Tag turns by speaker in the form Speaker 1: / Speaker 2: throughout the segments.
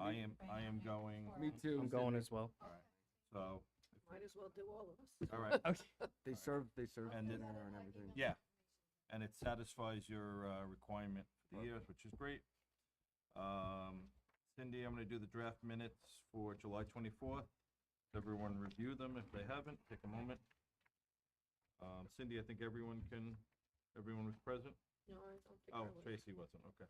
Speaker 1: I am, I am going,
Speaker 2: Me too.
Speaker 3: I'm going as well.
Speaker 1: so,
Speaker 4: Might as well do all of us.
Speaker 1: all right.
Speaker 3: Okay.
Speaker 2: They serve, they serve
Speaker 1: And
Speaker 2: dinner
Speaker 1: it-
Speaker 2: and everything.
Speaker 1: Yeah, and it satisfies your uh, requirement for the years, which is great. Um, Cindy, I'm gonna do the draft minutes for July twenty-fourth. Everyone review them if they haven't, take a moment. Um, Cindy, I think everyone can, everyone was present?
Speaker 4: No, I don't think I
Speaker 1: Oh,
Speaker 4: would.
Speaker 1: Tracy wasn't, okay.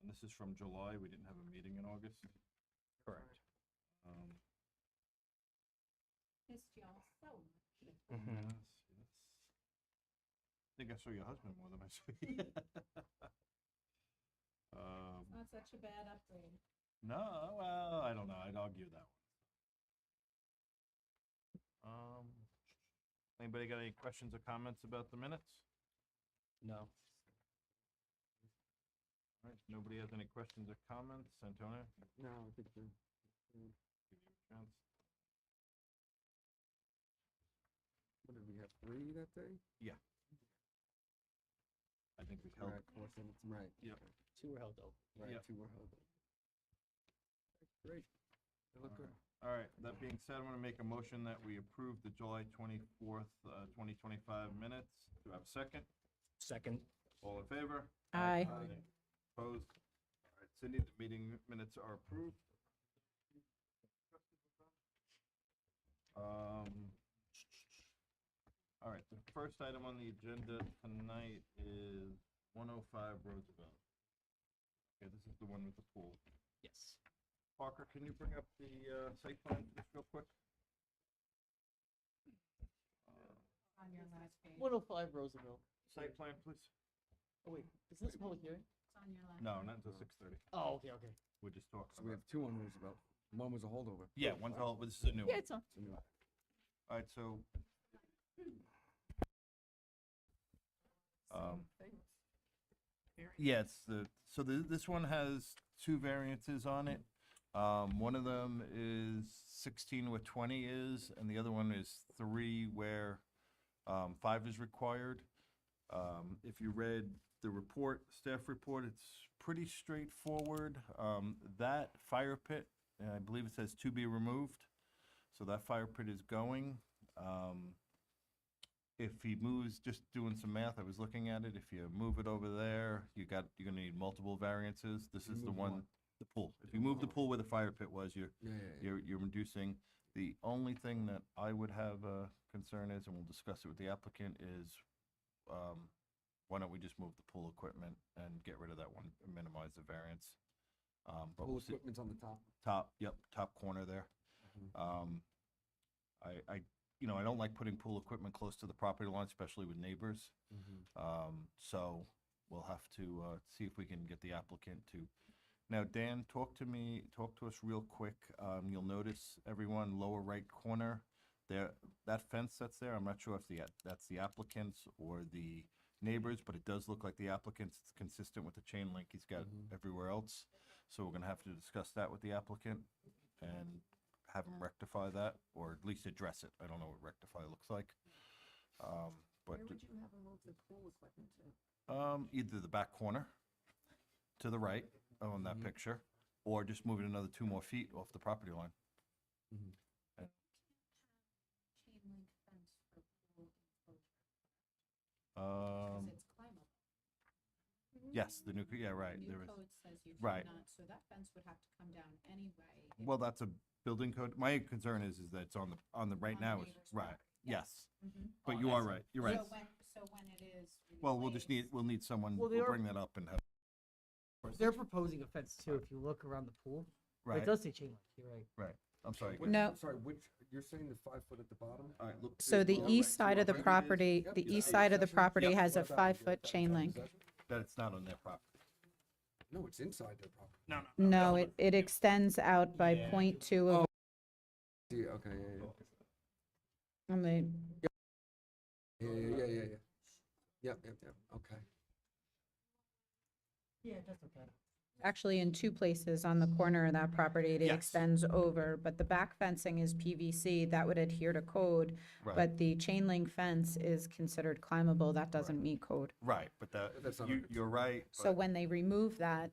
Speaker 1: And this is from July, we didn't have a meeting in August.
Speaker 3: Correct.
Speaker 1: Um,
Speaker 5: Missed y'all so much.
Speaker 2: Mm-hmm.
Speaker 3: Mhm.
Speaker 1: Yes, yes. I think I saw your husband more than I saw you. um,
Speaker 5: Not such a bad upgrade.
Speaker 1: no, well, I don't know. I'd argue that one. Um, anybody got any questions or comments about the minutes?
Speaker 3: No.
Speaker 1: All right, nobody has any questions or comments. Antonio,
Speaker 2: No, I think they're.
Speaker 1: give you a chance.
Speaker 2: What did we have? Three that day?
Speaker 1: I think we
Speaker 2: Right,
Speaker 1: held.
Speaker 2: four, seven, right.
Speaker 1: Yep.
Speaker 3: Two were held over.
Speaker 2: Right,
Speaker 1: Yep.
Speaker 2: two were held. Great. They look good.
Speaker 1: All right, that being said, I'm going to make a motion that we approve the July 24th, uh, 2025 minutes. Do I have a second?
Speaker 3: Second.
Speaker 1: All in favor?
Speaker 4: Aye.
Speaker 1: Opposed? All right, Cindy, the meeting minutes are approved. Um, all right, the first item on the agenda tonight is one oh five Roosevelt. Okay, this is the one with the pool.
Speaker 3: Yes.
Speaker 1: Parker, can you bring up the, uh, site plan for this real quick? Uh,
Speaker 5: On your last page.
Speaker 3: One oh five Roosevelt.
Speaker 1: Site plan, please?
Speaker 3: Oh wait, is this a public hearing?
Speaker 5: It's on your last.
Speaker 1: No, not until six thirty.
Speaker 3: Oh, okay, okay.
Speaker 1: We're just
Speaker 2: So
Speaker 1: talking
Speaker 2: we
Speaker 1: about.
Speaker 2: have two on Roosevelt. One was a holdover.
Speaker 1: Yeah, one's all, this is a new one.
Speaker 3: on.
Speaker 2: So we-
Speaker 1: All right, so. Um, yeah, it's the, so the, this one has two variances on it. Um, one of them is sixteen where twenty is, and the other one is three where, um, five is required. Um, if you read the report, staff report, it's pretty straightforward. Um, that fire pit, and I believe it says to be removed. So that fire pit is going. Um, If he moves, just doing some math, I was looking at it, if you move it over there, you got, you're gonna need multiple variances. This
Speaker 2: You
Speaker 1: is the
Speaker 2: move
Speaker 1: one,
Speaker 2: one.
Speaker 1: the pool. If you move the pool where the fire pit was, you're,
Speaker 2: Yeah, yeah, yeah.
Speaker 1: you're, you're reducing. The only thing that I would have a concern is, and we'll discuss it with the applicant, is um, why don't we just move the pool equipment and get rid of that one, and minimize the variance? Um, but
Speaker 2: Pool
Speaker 1: we'll see,
Speaker 2: equipment's on the top.
Speaker 1: top, yep, top corner there.
Speaker 2: Mhm.
Speaker 1: Um, I, I, you know, I don't like putting pool equipment close to the property line, especially with neighbors.
Speaker 2: Mm-hmm.
Speaker 1: Um, so we'll have to, uh, see if we can get the applicant to. Now, Dan, talk to me, talk to us real quick. Um, you'll notice everyone lower right corner there, that fence that's there, I'm not sure if the, a- that's the applicant's or the neighbors, but it does look like the applicant's. It's consistent with the chain link he's got
Speaker 2: Mhm.
Speaker 1: everywhere else. So we're gonna have to discuss that with the applicant and have him rectify that or at least address it. I don't know what rectify looks like. Um, but.
Speaker 4: Where would you have them move the pool equipment to?
Speaker 1: Um, either the back corner to the right on that
Speaker 2: Mhm.
Speaker 1: picture, or just move it another two more feet off the property line.
Speaker 5: Chain link fence for pool enclosure,
Speaker 1: Um,
Speaker 5: because it's climbable.
Speaker 1: yes, the new, yeah, right,
Speaker 5: New
Speaker 1: there is.
Speaker 5: code says you
Speaker 1: right.
Speaker 5: cannot, so that fence would have to come down anyway. if
Speaker 1: Well, that's a building code. My concern is, is that it's on the, on the, right
Speaker 5: on the
Speaker 1: now, it's,
Speaker 5: neighbor's
Speaker 1: right,
Speaker 5: property.
Speaker 1: yes.
Speaker 5: Mhm.
Speaker 1: But
Speaker 3: Oh,
Speaker 1: you
Speaker 3: I
Speaker 1: are
Speaker 3: see.
Speaker 1: right, you're right.
Speaker 5: So when, so when it is.
Speaker 1: Well, we'll just need,
Speaker 5: replaced-
Speaker 1: we'll need someone,
Speaker 3: Well, they
Speaker 1: we'll
Speaker 3: are-
Speaker 1: bring that up and have,
Speaker 3: They're proposing a fence too, if you look around the pool. But It
Speaker 1: right,
Speaker 3: does say chain link, you're right.
Speaker 1: I'm sorry.
Speaker 2: Which-
Speaker 4: No.
Speaker 2: Sorry, which, you're saying the five foot at the bottom?
Speaker 1: All right, look.
Speaker 4: So the
Speaker 2: Yeah,
Speaker 4: east
Speaker 2: right,
Speaker 4: side of the
Speaker 2: right, it is.
Speaker 4: property,
Speaker 2: Yep,
Speaker 4: the
Speaker 2: yeah,
Speaker 4: east
Speaker 2: yeah,
Speaker 4: side of the
Speaker 2: section.
Speaker 4: property
Speaker 1: Yep.
Speaker 4: has a
Speaker 2: What about the
Speaker 4: five-foot
Speaker 2: other
Speaker 4: chain
Speaker 2: side?
Speaker 4: link.
Speaker 2: Is that-
Speaker 1: That it's not on their property.
Speaker 2: No, it's inside their property.
Speaker 4: No, it, it extends out by
Speaker 3: Yeah.
Speaker 4: point two
Speaker 1: Oh.
Speaker 4: of,
Speaker 2: See, okay, yeah, yeah.
Speaker 4: on the,
Speaker 2: Yeah, yeah, yeah, yeah, yeah. Yep, yep, yep, okay.
Speaker 3: Yeah, that's okay.
Speaker 4: actually in two places on the corner of that property, it
Speaker 1: Yes.
Speaker 4: extends over. But the back fencing is PVC, that would adhere to code,
Speaker 1: Right,
Speaker 4: but the chain link fence is considered climbable, that doesn't meet code.
Speaker 1: right, but that,
Speaker 2: That's not
Speaker 1: you,
Speaker 2: under-
Speaker 1: you're right.
Speaker 4: So
Speaker 1: but-
Speaker 4: when they remove that,